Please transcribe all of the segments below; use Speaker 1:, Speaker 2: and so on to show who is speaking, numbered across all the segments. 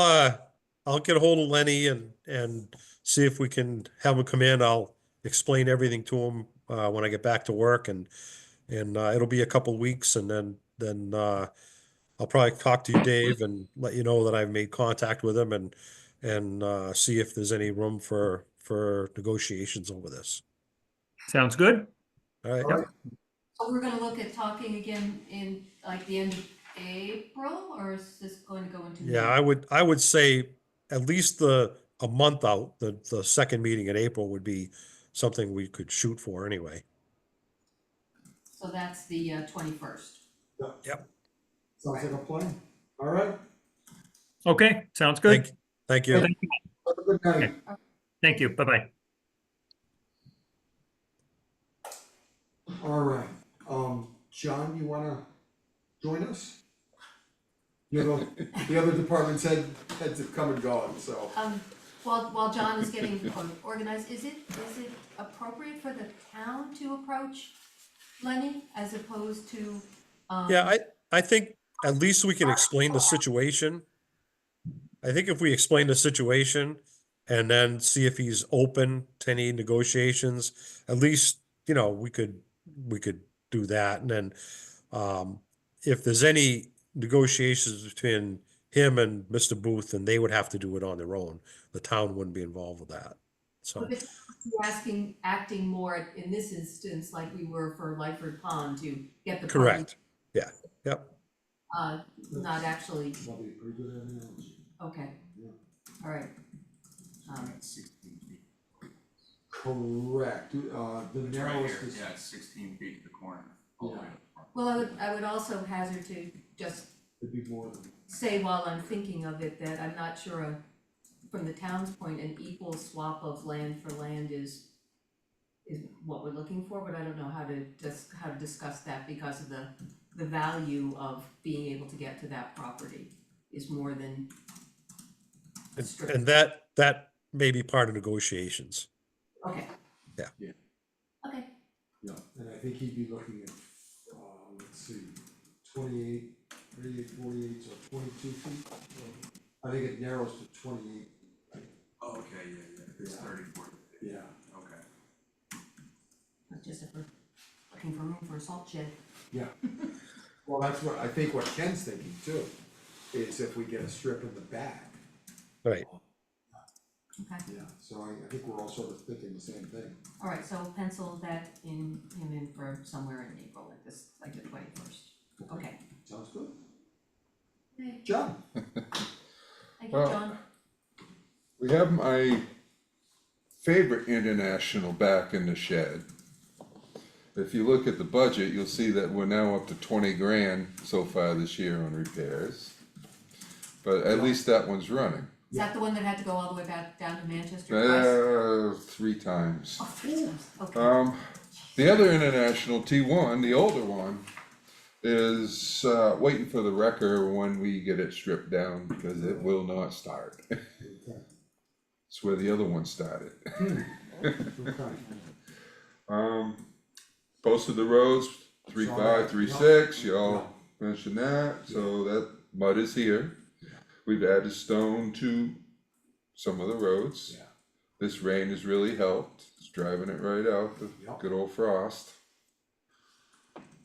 Speaker 1: Uh, I'll get a hold of Lenny and, and see if we can have him come in. I'll explain everything to him, uh, when I get back to work and, and, uh, it'll be a couple weeks and then, then, uh, I'll probably talk to you, Dave, and let you know that I've made contact with him and, and, uh, see if there's any room for, for negotiations over this.
Speaker 2: Sounds good.
Speaker 1: All right?
Speaker 2: Yep.
Speaker 3: So we're gonna look at talking again in like the end of April, or is this going to go into?
Speaker 1: Yeah,
Speaker 3: May?
Speaker 1: I would, I would say at least the, a month out, the, the second meeting in April would be something we could shoot for anyway.
Speaker 3: So that's the uh, twenty-first.
Speaker 4: Sounds like a plan. All right.
Speaker 2: Okay, sounds
Speaker 1: Thank,
Speaker 2: good.
Speaker 1: thank you.
Speaker 2: Thank you.
Speaker 4: Have a good night.
Speaker 2: Thank you. Bye-bye.
Speaker 4: All right. Um, John, you wanna join us? You know, the other departments head, heads have come and gone, so.
Speaker 3: Um, while, while John is getting um, organized, is it, is it appropriate for the town to approach Lenny as opposed to, um?
Speaker 1: Yeah, I, I think at least we can explain the situation. I think if we explain the situation and then see if he's open to any negotiations, at least, you know, we could, we could do that. And then, um, if there's any negotiations between him and Mr. Booth, then they would have to do it on their own. The town wouldn't be involved with that. So,
Speaker 3: Because we're Asking, acting more in this instance like we were for Lightford Pond to get the. party,
Speaker 1: correct. Yeah, yep.
Speaker 3: Uh, not actually,
Speaker 4: That'd be a pretty good analogy.
Speaker 3: okay,
Speaker 4: Yeah.
Speaker 3: all right. Um,
Speaker 4: Correct. Uh, the
Speaker 5: It's right
Speaker 4: narrowest
Speaker 5: here,
Speaker 4: is,
Speaker 5: yeah, it's sixteen feet at the corner, all the way to the front.
Speaker 3: well, I would, I would also hazard to just
Speaker 4: it'd be more than,
Speaker 3: say while I'm thinking of it that I'm not sure a, from the town's point, an equal swap of land for land is is what we're looking for, but I don't know how to just, how to discuss that because of the the value of being able to get to that property is more than
Speaker 1: And,
Speaker 3: Sure.
Speaker 1: and that, that may be part of negotiations.
Speaker 3: Okay.
Speaker 1: Yeah.
Speaker 5: Yeah.
Speaker 3: Okay,
Speaker 4: yeah, and I think he'd be looking at, uh, let's see, twenty-eight, thirty-eight, forty-eight, so twenty-two feet. I think it narrows to twenty-eight,
Speaker 5: Oh, okay, yeah, yeah, it's
Speaker 4: Yeah.
Speaker 5: thirty-four,
Speaker 4: yeah.
Speaker 5: okay.
Speaker 3: that's just if we're looking for room for a salt shed.
Speaker 4: Yeah, well, that's what, I think what Ken's thinking too, is if we get a strip in the back.
Speaker 1: Right.
Speaker 3: Okay,
Speaker 4: Yeah, so I, I think we're all sort of thinking the same thing.
Speaker 3: all right, so we'll pencil that in, him in for somewhere in April, like this, like the twenty-first. Okay,
Speaker 4: Sounds good.
Speaker 3: Okay.
Speaker 4: John?
Speaker 3: thank you,
Speaker 6: Well,
Speaker 3: John.
Speaker 6: We have my favorite international back in the shed. If you look at the budget, you'll see that we're now up to twenty grand so far this year on repairs. But at least that one's running,
Speaker 3: Is that the one that had to go all the way back down to Manchester twice?
Speaker 6: uh, three times.
Speaker 3: Oh, three times, okay.
Speaker 6: Um, the other international T one, the older one, is, uh, waiting for the wrecker when we get it stripped down because it will not start. It's where the other one started.
Speaker 4: Okay.
Speaker 6: Um, most of the roads, three
Speaker 4: It's all
Speaker 6: five,
Speaker 4: right.
Speaker 6: three
Speaker 4: Yeah.
Speaker 6: six, y'all mentioned that, so that mud is here. We've added stone to some of the roads.
Speaker 4: Yeah.
Speaker 6: This rain has really helped, it's driving it right out, the
Speaker 4: Yeah.
Speaker 6: good old frost.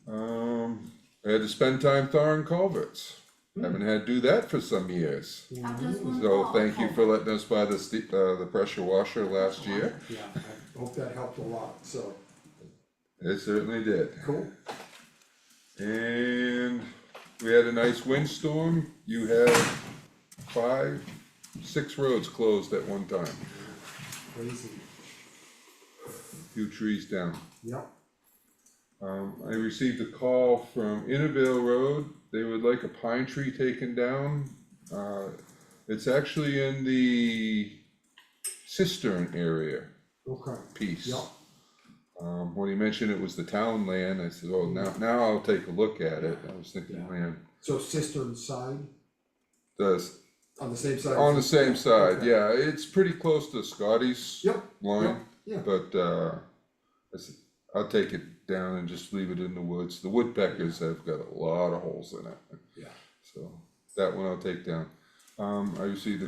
Speaker 6: Um, I had to spend time thawing culverts,
Speaker 4: Hmm.
Speaker 6: haven't had to do that for some years.
Speaker 3: How does one
Speaker 6: So
Speaker 3: fall?
Speaker 6: thank you
Speaker 3: Oh,
Speaker 6: for letting us buy the ste- uh, the pressure washer last year,
Speaker 4: Yeah, I hope that helped a lot, so,
Speaker 6: it certainly did.
Speaker 4: cool.
Speaker 6: And we had a nice windstorm, you had five, six roads closed at one time,
Speaker 4: Crazy.
Speaker 6: few trees down.
Speaker 4: Yep,
Speaker 6: Um, I received a call from Innerville Road, they would like a pine tree taken down. Uh, it's actually in the cistern area
Speaker 4: okay.
Speaker 6: piece.
Speaker 4: Yep,
Speaker 6: Um, when he mentioned it was the town land, I said, oh, now, now I'll take a look at it, I was thinking,
Speaker 4: Yeah.
Speaker 6: man,
Speaker 4: so cistern side,
Speaker 6: does
Speaker 4: on the same side?
Speaker 6: On the same side,
Speaker 4: Okay.
Speaker 6: yeah, it's pretty close to Scotty's
Speaker 4: Yep, yep,
Speaker 6: line,
Speaker 4: yeah,
Speaker 6: but, uh, I said, I'll take it down and just leave it in the woods, the woodpeckers have got a lot of holes in it,
Speaker 4: yeah.
Speaker 6: so, that one I'll take down. Um, I see the